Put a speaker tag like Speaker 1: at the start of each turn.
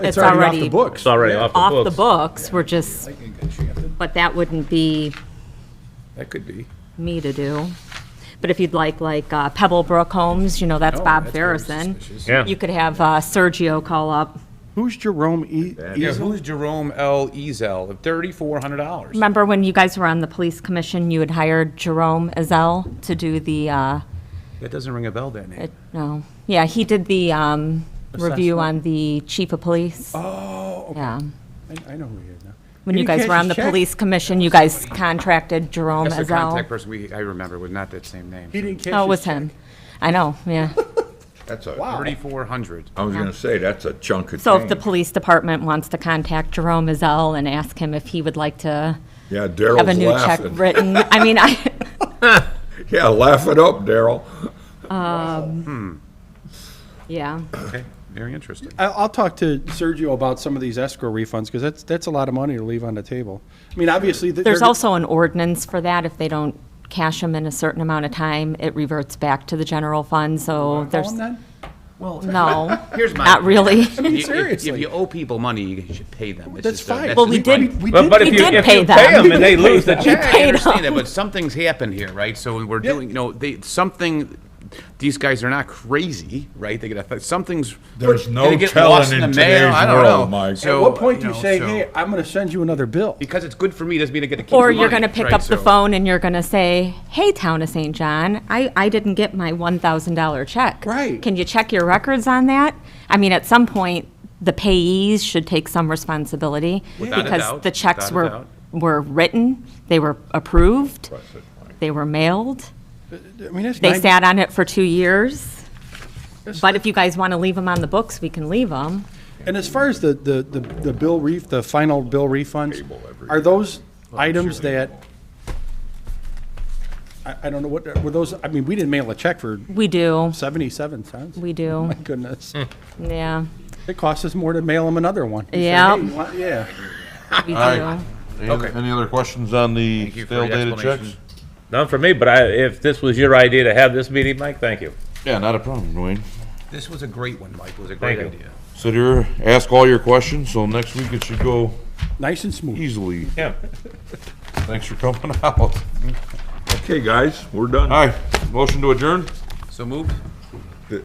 Speaker 1: It's
Speaker 2: it's already
Speaker 1: off the books.
Speaker 3: It's already off the books.
Speaker 2: off the books, we're just, but that wouldn't be
Speaker 1: That could be.
Speaker 2: me to do. But if you'd like, like uh, Pebble Brook Homes, you know, that's
Speaker 1: Oh,
Speaker 2: Bob
Speaker 1: that's very
Speaker 2: Farrison.
Speaker 1: suspicious.
Speaker 3: Yeah.
Speaker 2: You could have uh, Sergio call up.
Speaker 4: Who's Jerome E?
Speaker 1: Yeah,
Speaker 4: Easel?
Speaker 1: who's Jerome L. Ezel? Thirty-four hundred dollars.
Speaker 2: Remember when you guys were on the police commission, you had hired Jerome Azell to do the, uh,
Speaker 1: That doesn't ring a bell, that name.
Speaker 2: it- no, yeah, he did the um, review on the chief of police.
Speaker 1: Oh, okay.
Speaker 2: Yeah.
Speaker 1: I I know who you are now.
Speaker 2: When you guys
Speaker 1: can't
Speaker 2: were on the
Speaker 1: just check.
Speaker 2: police commission, you guys contracted Jerome
Speaker 1: That's the contact
Speaker 2: Azell.
Speaker 1: person we, I remember, was not that same name.
Speaker 4: He didn't catch
Speaker 2: Oh, it was
Speaker 4: his check.
Speaker 2: him. I know, yeah.
Speaker 5: That's a,
Speaker 1: Thirty-four hundred.
Speaker 5: I was gonna say, that's a chunk of
Speaker 2: So if the
Speaker 5: change.
Speaker 2: police department wants to contact Jerome Azell and ask him if he would like to
Speaker 5: Yeah,
Speaker 2: have a
Speaker 5: Daryl's
Speaker 2: new check
Speaker 5: laughing.
Speaker 2: written, I mean, I,
Speaker 5: Yeah, laugh it up, Daryl.
Speaker 2: yeah.
Speaker 1: Okay, very interesting.
Speaker 4: I- I'll talk to Sergio about some of these escrow refunds, because that's, that's a lot of money to leave on the table. I mean, obviously. th-
Speaker 2: There's
Speaker 4: they're-
Speaker 2: also an ordinance for that. If they don't cash them in a certain amount of time, it reverts back to the general fund, so
Speaker 4: Call
Speaker 2: there's,
Speaker 4: him then?
Speaker 2: no,
Speaker 1: Here's my.
Speaker 2: not really.
Speaker 1: You- if- If
Speaker 4: Seriously.
Speaker 1: you owe people money, you should pay them. It's
Speaker 4: That's
Speaker 1: just a-
Speaker 4: fine.
Speaker 2: Well, we
Speaker 1: just
Speaker 2: did-
Speaker 1: my-
Speaker 4: We
Speaker 3: But
Speaker 4: did,
Speaker 3: but
Speaker 2: We
Speaker 3: if you,
Speaker 2: did
Speaker 3: if
Speaker 2: pay
Speaker 3: you
Speaker 2: them.
Speaker 3: pay them and they lose the check.
Speaker 2: paid
Speaker 1: I understand
Speaker 2: them.
Speaker 1: that, but something's happened here, right? So we're doing, you know, they, something, these guys are not crazy, right? They get, a- something's.
Speaker 5: There's no
Speaker 1: they get
Speaker 5: telling
Speaker 1: lost the
Speaker 5: in
Speaker 1: mail,
Speaker 5: today's
Speaker 1: I don't
Speaker 5: world,
Speaker 1: know.
Speaker 5: Mike. At
Speaker 4: at
Speaker 1: So,
Speaker 4: what point do you
Speaker 1: know,
Speaker 4: say,
Speaker 1: so-
Speaker 4: hey, I'm going to send you another bill?
Speaker 1: Because it's good for me, doesn't mean I get to keep the
Speaker 2: Or
Speaker 1: money.
Speaker 2: you're going to pick
Speaker 1: right?
Speaker 2: up the
Speaker 1: So-
Speaker 2: phone and you're going to say, hey, Town of St. John, I, I didn't get my $1,000 check.
Speaker 4: Right.
Speaker 2: Can you check your records on that? I mean, at some point, the payees should take some responsibility.
Speaker 1: Without a
Speaker 2: Because
Speaker 1: doubt,
Speaker 2: the checks
Speaker 1: without a
Speaker 2: were, were written, they were approved, they were mailed,
Speaker 4: I mean, that's
Speaker 2: they
Speaker 4: nine-
Speaker 2: sat on it for two years. But if you guys want to leave them on the books, we can leave them.
Speaker 4: And as far as the, the, the the bill ref, the final bill refunds, are those items that, I, I don't know what, were those, I mean, we didn't mail a check for
Speaker 2: We do,
Speaker 4: 77 cents.
Speaker 2: we do,
Speaker 4: My goodness.
Speaker 2: yeah,
Speaker 4: It costs us more to mail them another one. You say,
Speaker 2: Yeah.
Speaker 4: "Hey, you want-" Yeah.
Speaker 2: we
Speaker 6: right.
Speaker 2: do.
Speaker 1: Okay.
Speaker 6: Any other questions on the
Speaker 1: you for
Speaker 6: stale
Speaker 1: the
Speaker 6: dated
Speaker 1: explanation.
Speaker 6: checks?
Speaker 3: None for me, but I, if this was your idea to have this meeting, Mike, thank you.
Speaker 6: Yeah, not a problem, Dwayne.
Speaker 1: This was a great one, Mike. It was a great
Speaker 3: Thank you.
Speaker 1: idea.
Speaker 6: Sit here, ask all your questions, so next week it should go
Speaker 4: Nice and smooth.
Speaker 6: easily.
Speaker 3: Yeah.
Speaker 6: Thanks for coming out.
Speaker 5: Okay, guys, we're done.
Speaker 6: Hi, motion to adjourn?
Speaker 1: So moved?